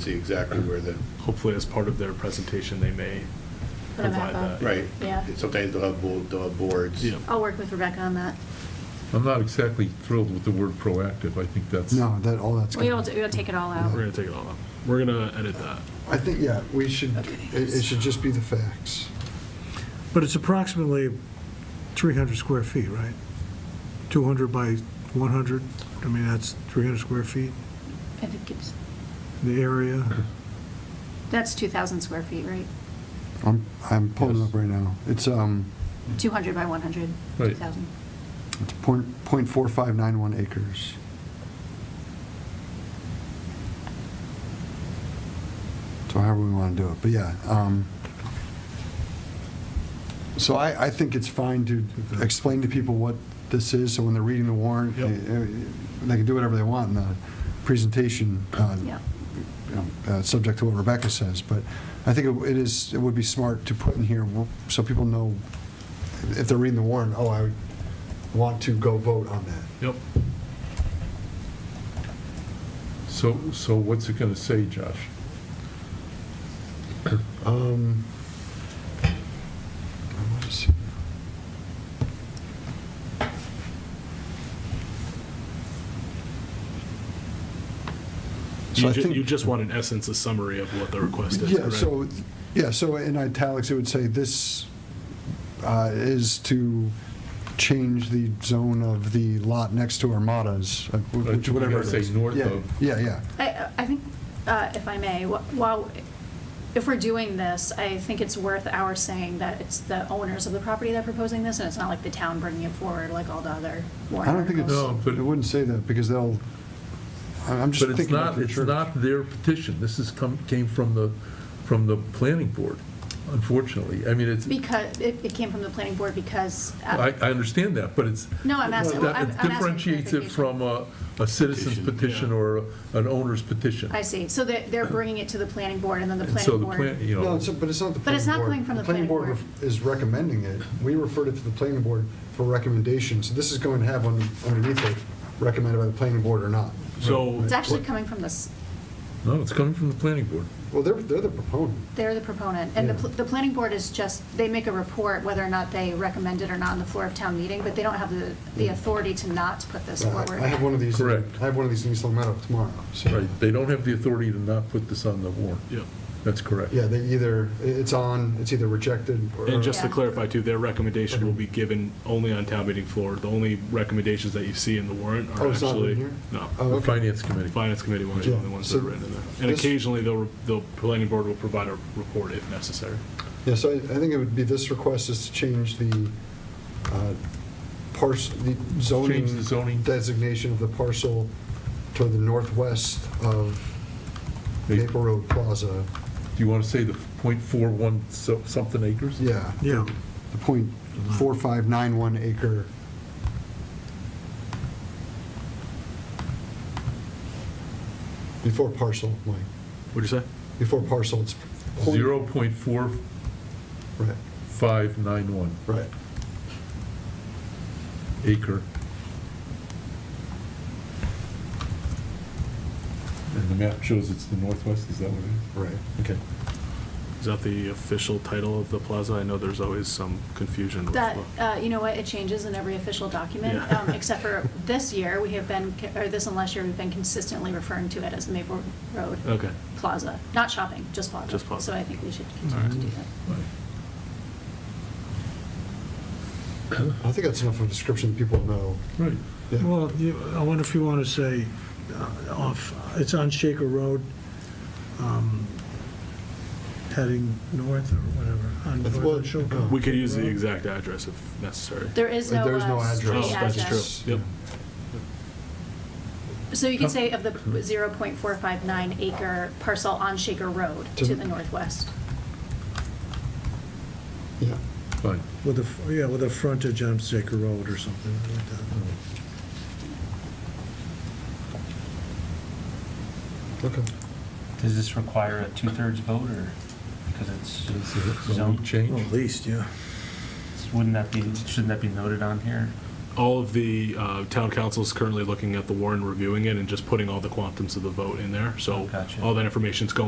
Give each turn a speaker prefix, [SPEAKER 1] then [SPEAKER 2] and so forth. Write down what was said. [SPEAKER 1] see exactly where the,
[SPEAKER 2] hopefully as part of their presentation, they may
[SPEAKER 3] Put a map
[SPEAKER 2] provide
[SPEAKER 3] up.
[SPEAKER 2] that.
[SPEAKER 1] right.
[SPEAKER 3] Yeah.
[SPEAKER 1] Sometimes they'll have, bo- they'll have boards.
[SPEAKER 2] Yeah.
[SPEAKER 3] I'll work with Rebecca on that.
[SPEAKER 4] I'm not exactly thrilled with the word proactive. I think that's.
[SPEAKER 5] No, that, all that's.
[SPEAKER 3] We
[SPEAKER 5] good.
[SPEAKER 3] don't, we'll take it all out.
[SPEAKER 2] We're gonna take it all out. We're gonna edit that.
[SPEAKER 5] I think, yeah, we should,
[SPEAKER 3] Okay.
[SPEAKER 5] it, it should just be the facts.
[SPEAKER 6] But it's approximately 300 square feet, right? 200 by 100, I mean, that's 300 square feet,
[SPEAKER 3] I think it's,
[SPEAKER 6] the area.
[SPEAKER 3] that's 2,000 square feet, right?
[SPEAKER 5] I'm, I'm pulling
[SPEAKER 4] Yes.
[SPEAKER 5] up right now. It's, um,
[SPEAKER 3] 200 by 100,
[SPEAKER 4] Mm-hmm. Right.
[SPEAKER 3] 2,000.
[SPEAKER 5] it's point, point four five nine one acres. So however we want to do it, but yeah, um, so I, I think it's fine to explain to people what this is, so when they're reading the warrant,
[SPEAKER 2] Yep.
[SPEAKER 5] eh, eh, they can do whatever they want in the presentation, uh,
[SPEAKER 3] Yeah.
[SPEAKER 5] you know, uh, subject to what Rebecca says, but I think it it is, it would be smart to put in here, wh- so people know, if they're reading the warrant, oh, I want to go vote on that.
[SPEAKER 2] Yep.
[SPEAKER 4] So, so what's it gonna say, Josh?
[SPEAKER 5] Um, I want to see. So
[SPEAKER 2] You
[SPEAKER 5] I
[SPEAKER 2] ju-
[SPEAKER 5] think-
[SPEAKER 2] you just want in essence a summary of what the request is,
[SPEAKER 5] Yeah,
[SPEAKER 2] correct?
[SPEAKER 5] so, yeah, so in italics, it would say this uh, is to change the zone of the lot next to Armadas, uh,
[SPEAKER 4] I think
[SPEAKER 5] which-
[SPEAKER 4] we
[SPEAKER 5] whatever it
[SPEAKER 4] gotta say
[SPEAKER 5] is.
[SPEAKER 4] north
[SPEAKER 5] Yeah,
[SPEAKER 4] of.
[SPEAKER 5] Yeah, yeah.
[SPEAKER 3] I, I think, uh, if I may, wh- while, if we're doing this, I think it's worth our saying that it's the owners of the property that are proposing this, and it's not like the town bringing it forward like all the other warrant
[SPEAKER 5] I don't think it's,
[SPEAKER 3] articles.
[SPEAKER 4] No, but-
[SPEAKER 5] it wouldn't say that, because they'll, I- I'm just
[SPEAKER 4] But it's
[SPEAKER 5] thinking about
[SPEAKER 4] not,
[SPEAKER 5] the
[SPEAKER 4] it's
[SPEAKER 5] church.
[SPEAKER 4] not their petition. This is come, came from the, from the planning board, unfortunately. I mean, it's,
[SPEAKER 3] Because, it, it came from the planning board because,
[SPEAKER 4] I,
[SPEAKER 3] uh,
[SPEAKER 4] I understand that, but it's.
[SPEAKER 3] No, I'm asking-
[SPEAKER 4] that-
[SPEAKER 3] I'm- I'm
[SPEAKER 4] It
[SPEAKER 3] asking
[SPEAKER 4] differentiates
[SPEAKER 3] clarification.
[SPEAKER 4] it from a, a citizen's
[SPEAKER 1] Petition,
[SPEAKER 4] petition
[SPEAKER 2] yeah.
[SPEAKER 4] or an owner's petition.
[SPEAKER 3] I see, so they're, they're bringing it to the planning board, and then the
[SPEAKER 4] And so
[SPEAKER 3] planning
[SPEAKER 4] the
[SPEAKER 3] board.
[SPEAKER 4] plan, you know.
[SPEAKER 5] No, it's- but it's not the planning board.
[SPEAKER 3] But it's not coming from the planning
[SPEAKER 5] ref- is recommending it. We referred it to the planning board for recommendations. This is going to have un- underneath it, recommended by the planning board or not.
[SPEAKER 2] So,
[SPEAKER 3] It's actually coming from this,
[SPEAKER 4] No, it's coming from the planning board.
[SPEAKER 5] Well, they're, they're the proponent.
[SPEAKER 3] They're the proponent, and the, pl-
[SPEAKER 5] Yeah.
[SPEAKER 3] the planning board is just, they make a report whether or not they recommend it or not on the floor of town meeting, but they don't have the, the authority to not put this
[SPEAKER 5] I
[SPEAKER 3] forward.
[SPEAKER 5] I have one of these.
[SPEAKER 4] Correct.
[SPEAKER 5] I have one of these in East Long Meadow tomorrow. so-
[SPEAKER 4] Right, they don't have the authority to not put this on the warrant.
[SPEAKER 2] yeah.
[SPEAKER 4] That's correct.
[SPEAKER 5] Yeah, they either, i- it's on, it's either rejected or.
[SPEAKER 2] And just to
[SPEAKER 3] Yeah.
[SPEAKER 2] clarify too, their recommendation will be given only on town meeting floor. The only recommendations that you see in the warrant
[SPEAKER 5] Oh,
[SPEAKER 2] are
[SPEAKER 5] it's not in
[SPEAKER 2] actually.
[SPEAKER 5] here?
[SPEAKER 2] No.
[SPEAKER 5] Oh,
[SPEAKER 4] The
[SPEAKER 5] okay.
[SPEAKER 4] finance
[SPEAKER 2] The
[SPEAKER 4] committee.
[SPEAKER 2] Finance committee ones are the only
[SPEAKER 5] Yeah,
[SPEAKER 2] ones that are
[SPEAKER 5] so
[SPEAKER 2] written in there. And
[SPEAKER 5] this-
[SPEAKER 2] occasionally, they'll, the planning board will provide a report if necessary.
[SPEAKER 5] Yeah, so I, I think it would be, this request is to change the uh, parcel, the zoning.
[SPEAKER 4] Change the zoning.
[SPEAKER 5] Designation of the parcel to the northwest of Maple Road Plaza.
[SPEAKER 4] Do you want to say the .41 so- something acres?
[SPEAKER 5] Yeah,
[SPEAKER 6] Yeah,
[SPEAKER 5] the point four five nine one acre. Before parcel, Mike,
[SPEAKER 2] What'd you say?
[SPEAKER 5] before parcel, it's. point-
[SPEAKER 4] Zero point four
[SPEAKER 5] Right,
[SPEAKER 4] five nine one
[SPEAKER 5] right.
[SPEAKER 4] acre. And the map shows it's the northwest, is that what it
[SPEAKER 5] Right.
[SPEAKER 4] is? Okay.
[SPEAKER 2] Is that the official title of the plaza? I know there's always some confusion. with
[SPEAKER 3] That,
[SPEAKER 2] what-
[SPEAKER 3] uh, you know what, it changes in every official document,
[SPEAKER 2] Yeah.
[SPEAKER 3] um, except for this year, we have been, co- or this and last year, we've been consistently referring to it as Maple Road
[SPEAKER 2] Okay.
[SPEAKER 3] Plaza, not shopping, just plaza.
[SPEAKER 2] Just plaza.
[SPEAKER 3] So I think we should continue to do that.
[SPEAKER 4] Right.
[SPEAKER 5] I think that's enough of a description that people know.
[SPEAKER 4] Right.
[SPEAKER 5] Yeah.
[SPEAKER 6] well, you- I wonder if you want to say, uh, off, it's on Shaker Road, um, heading north or whatever, on
[SPEAKER 5] That's
[SPEAKER 6] North
[SPEAKER 5] what-
[SPEAKER 6] on Shaker.
[SPEAKER 2] We could use the
[SPEAKER 6] Road.
[SPEAKER 2] exact address if necessary.
[SPEAKER 3] There is no,
[SPEAKER 5] There is no
[SPEAKER 3] uh,
[SPEAKER 5] address.
[SPEAKER 3] street
[SPEAKER 2] Oh, that's
[SPEAKER 3] address.
[SPEAKER 2] true. Yep.
[SPEAKER 3] So you could say of the 0.459 acre parcel on Shaker Road
[SPEAKER 5] To
[SPEAKER 3] to
[SPEAKER 5] the-
[SPEAKER 3] the northwest.
[SPEAKER 5] Yeah.
[SPEAKER 4] Fine.
[SPEAKER 6] With a, f- yeah, with a frontage on Shaker Road or something like that.
[SPEAKER 5] Okay.
[SPEAKER 7] Does this require a two-thirds vote, or, because it's
[SPEAKER 4] So we
[SPEAKER 7] zone,
[SPEAKER 4] change?
[SPEAKER 6] Well, At least, yeah.
[SPEAKER 7] wouldn't that be, shouldn't that be noted on here?
[SPEAKER 2] all of the uh, town council is currently looking at the warrant, reviewing it, and just putting all the quantums of the vote in there. So
[SPEAKER 7] Gotcha.
[SPEAKER 2] all that information's going